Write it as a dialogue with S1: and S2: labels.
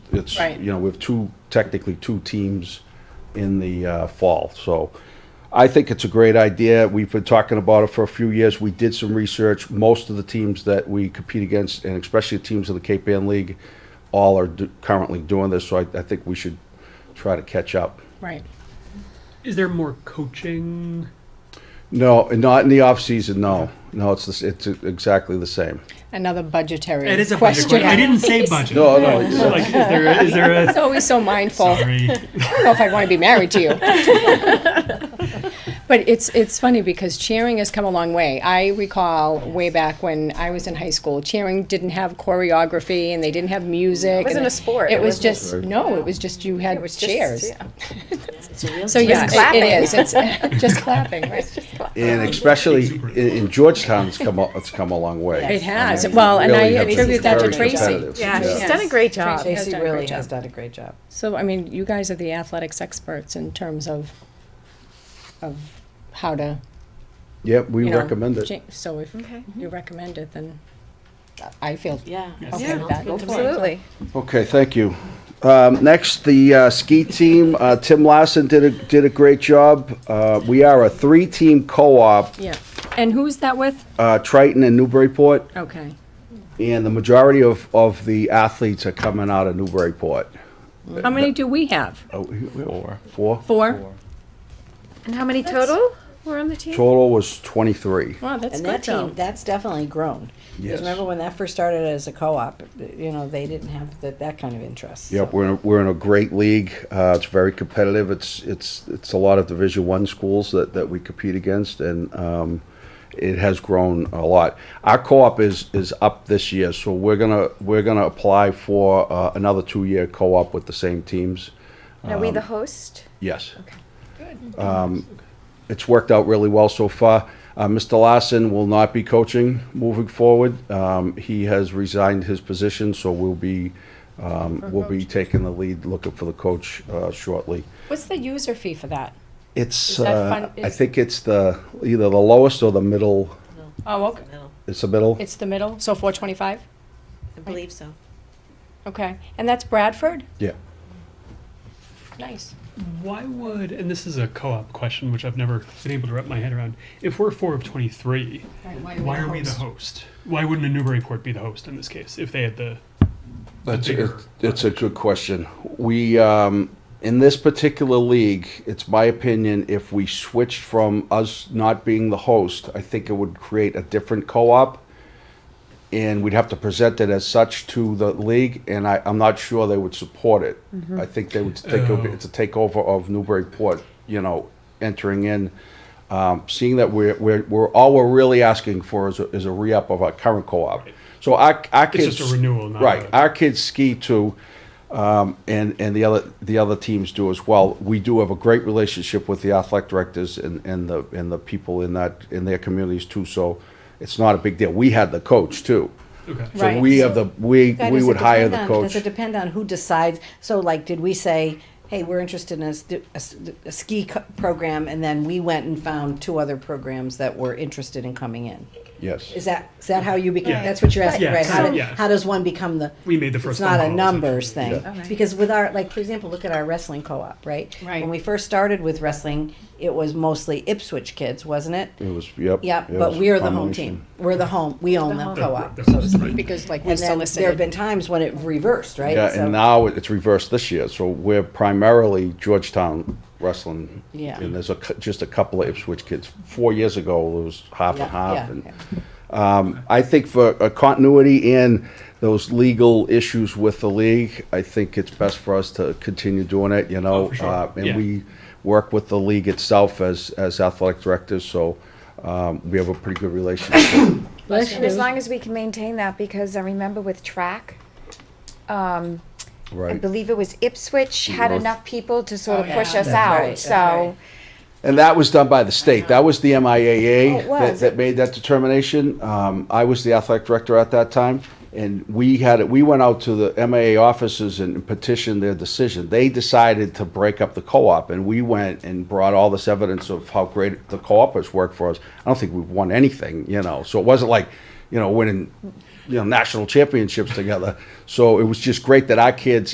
S1: it's,
S2: Right.
S1: you know, we have two, technically two teams in the uh, fall, so I think it's a great idea. We've been talking about it for a few years. We did some research. Most of the teams that we compete against, and especially the teams of the Cape Ann League, all are do- currently doing this, so I, I think we should try to catch up.
S2: Right.
S3: Is there more coaching?
S1: No, not in the off-season, no. No, it's, the s- it's exactly the same.
S2: Another budgetary
S3: It is a budget
S2: question.
S3: question. I didn't say budget.
S1: No, no, it's-
S3: So, like, is there is there
S2: It's
S3: a
S2: always so mindful.
S3: sorry?
S2: I don't know if I'd want to be married to you. but it's it's funny because cheering has come a long way. I recall way back when I was in high school, cheering didn't have choreography and they didn't have music.
S4: It wasn't
S2: and
S4: a sport.
S2: It,
S4: It
S2: was
S4: wasn't
S2: just
S4: a
S2: no. It was just you had
S4: It was just-
S2: chairs.
S4: yeah.
S2: So yeah,
S4: Just
S2: it-
S4: clapping.
S2: it is. It's just clapping. Right?
S1: And especially in, in Georgetown, it's come, a- it's come a long way.
S2: It has. Well, and I
S1: Really, it's
S2: attribute that to
S1: very
S2: Tracy.
S1: competitive.
S4: Yeah, she's
S2: Yeah.
S4: done a great job.
S2: Tracy has
S4: She
S2: done a great
S4: really
S2: job.
S4: has done a great job.
S2: So I mean, you guys are the athletics experts in terms of of how to
S1: Yep, we
S2: you know,
S1: recommend it.
S2: cha- So if
S4: Okay.
S2: you recommend it, then I feel
S5: Yeah.
S2: okay with that. Go for it.
S4: Absolutely.
S1: Okay, thank you. Um, next, the uh, ski team. Uh, Tim Larson did a did a great job. Uh, we are a three team co op,
S2: Yeah, and who's that with?
S1: uh, Triton and Newburyport,
S2: Okay,
S1: and the majority of, of the athletes are coming out of Newburyport.
S2: how many do we have?
S1: Oh, we- we- four. Four.
S2: Four?
S4: And how many total were on the team?
S1: Total was twenty three.
S2: Wow, that's
S5: And
S2: good
S5: that
S2: though.
S5: team, that's definitely grown.
S1: Yes.
S5: Because remember when that first started as a co-op, you know, they didn't have that, that kind of interest.
S1: Yep, we're in a, we're in a great league. Uh, it's very competitive. It's it's it's a lot of Division One schools that, that we compete against, and um, it has grown a lot. Our co-op is is up this year, so we're gonna we're gonna apply for uh, another two year co-op with the same teams.
S4: Are we
S1: Um,
S4: the host?
S1: Yes. Okay, good. It's worked out really well so far. Uh, Mr. Larson will not be coaching moving forward. Um, He has resigned his position, so we'll be, um, we'll be taking the lead, looking for the coach uh, shortly.
S2: What's the user fee for that? Is
S1: It's,
S2: that
S1: uh,
S2: fun-
S1: I
S2: is-
S1: think it's the, either the lowest or the middle,
S2: Oh, okay,
S1: it's the middle?
S2: it's the middle, so four twenty-five?
S5: I believe so.
S2: Okay, and that's Bradford?
S1: Yeah.
S2: Nice.
S3: Why would and this is a co-op question which I've never been able to wrap my head around. If we're four of twenty three, why are we the host? Why wouldn't a Newburyport be the host in this case if they had the
S1: That's
S3: bigger
S1: it- it's a good question. We um, in this particular league, it's my opinion. If we switched from us not being the host, I think it would create a different co-op, and we'd have to present it as such to the league. And I, I'm not sure they would support it. I think they would think it would be-
S3: Oh.
S1: it's a takeover of Newburyport. You know, entering in. Um, seeing that we're, we're, we're all we're really asking for is a, is a re-up of our current co-op. So our, our
S3: It's
S1: kids
S3: just a renewal, not
S1: right?
S3: a-
S1: Our kids ski too, um, and and the other the other teams do as well. We do have a great relationship with the athletic directors and, and the and the people in that in their communities too. So it's not a big deal. We had the coach too,
S3: Okay.
S1: so
S2: Right.
S1: we have the we
S5: Guy,
S1: we
S5: does it
S1: would hire the
S5: depend on-
S1: coach.
S5: Does it depend on who decides? So like, did we say, hey, we're interested in a, st- a s- a ski co- program, and then we went and found two other programs that were interested in coming in?
S1: yes,
S5: Is that, is that how you became,
S3: Yeah.
S5: that's what you're asking,
S3: Yeah,
S5: right? How,
S3: so-
S5: did-
S3: yeah.
S5: how does one become the?
S3: We made the first
S5: It's
S3: phone
S5: not a
S3: call,
S5: numbers
S3: essentially.
S5: thing. Because with our, like, for example, look at our wrestling co-op, right?
S2: Right.
S5: When we first started with wrestling, it was mostly Ipswich kids, wasn't it?
S1: it was yep.
S5: Yep,
S1: Mm. it
S5: but
S1: was
S5: we're the home
S1: combination.
S5: team. We're the home, we own the co-op,
S3: Right,
S5: so to
S3: right.
S5: speak.
S2: Because like we
S5: And then there have
S2: solicited,
S5: been times when it reversed, right?
S1: Yeah,
S5: So-
S1: and now it's reversed this year. So we're primarily Georgetown wrestling.
S5: Yeah.
S1: And there's a, cou- just a couple of Ipswich kids. Four years ago, it was half
S5: Yeah,
S1: and half.
S5: yeah,
S1: and,
S5: yeah.
S1: Um, I think for uh, continuity and those legal issues with the league, I think it's best for us to continue doing it, you know?
S3: Oh, for sure.
S1: Uh, And
S3: Yeah.
S1: we work with the league itself as, as athletic directors, so, um, we have a pretty good relationship.
S4: And as long as we can maintain that, because I remember with track, um, I
S1: Right.
S4: believe it was Ipswich had
S1: North.
S4: enough people to sort of
S2: yeah.
S4: push us
S5: That's right,
S4: out,
S5: that's
S4: so.
S1: And that was done by the state. That was the
S4: Oh,
S1: MIAA
S4: it
S1: that,
S4: was.
S1: that made that determination. Um, I was the athletic director at that time, and we had it. We went out to the MIAA offices and petitioned their decision. They decided to break up the co-op, and we went and brought all this evidence of how great the co-op has worked for us. I don't think we've won anything, you know. So it wasn't like, you know, winning, you know, national championships together. So it was just great that our kids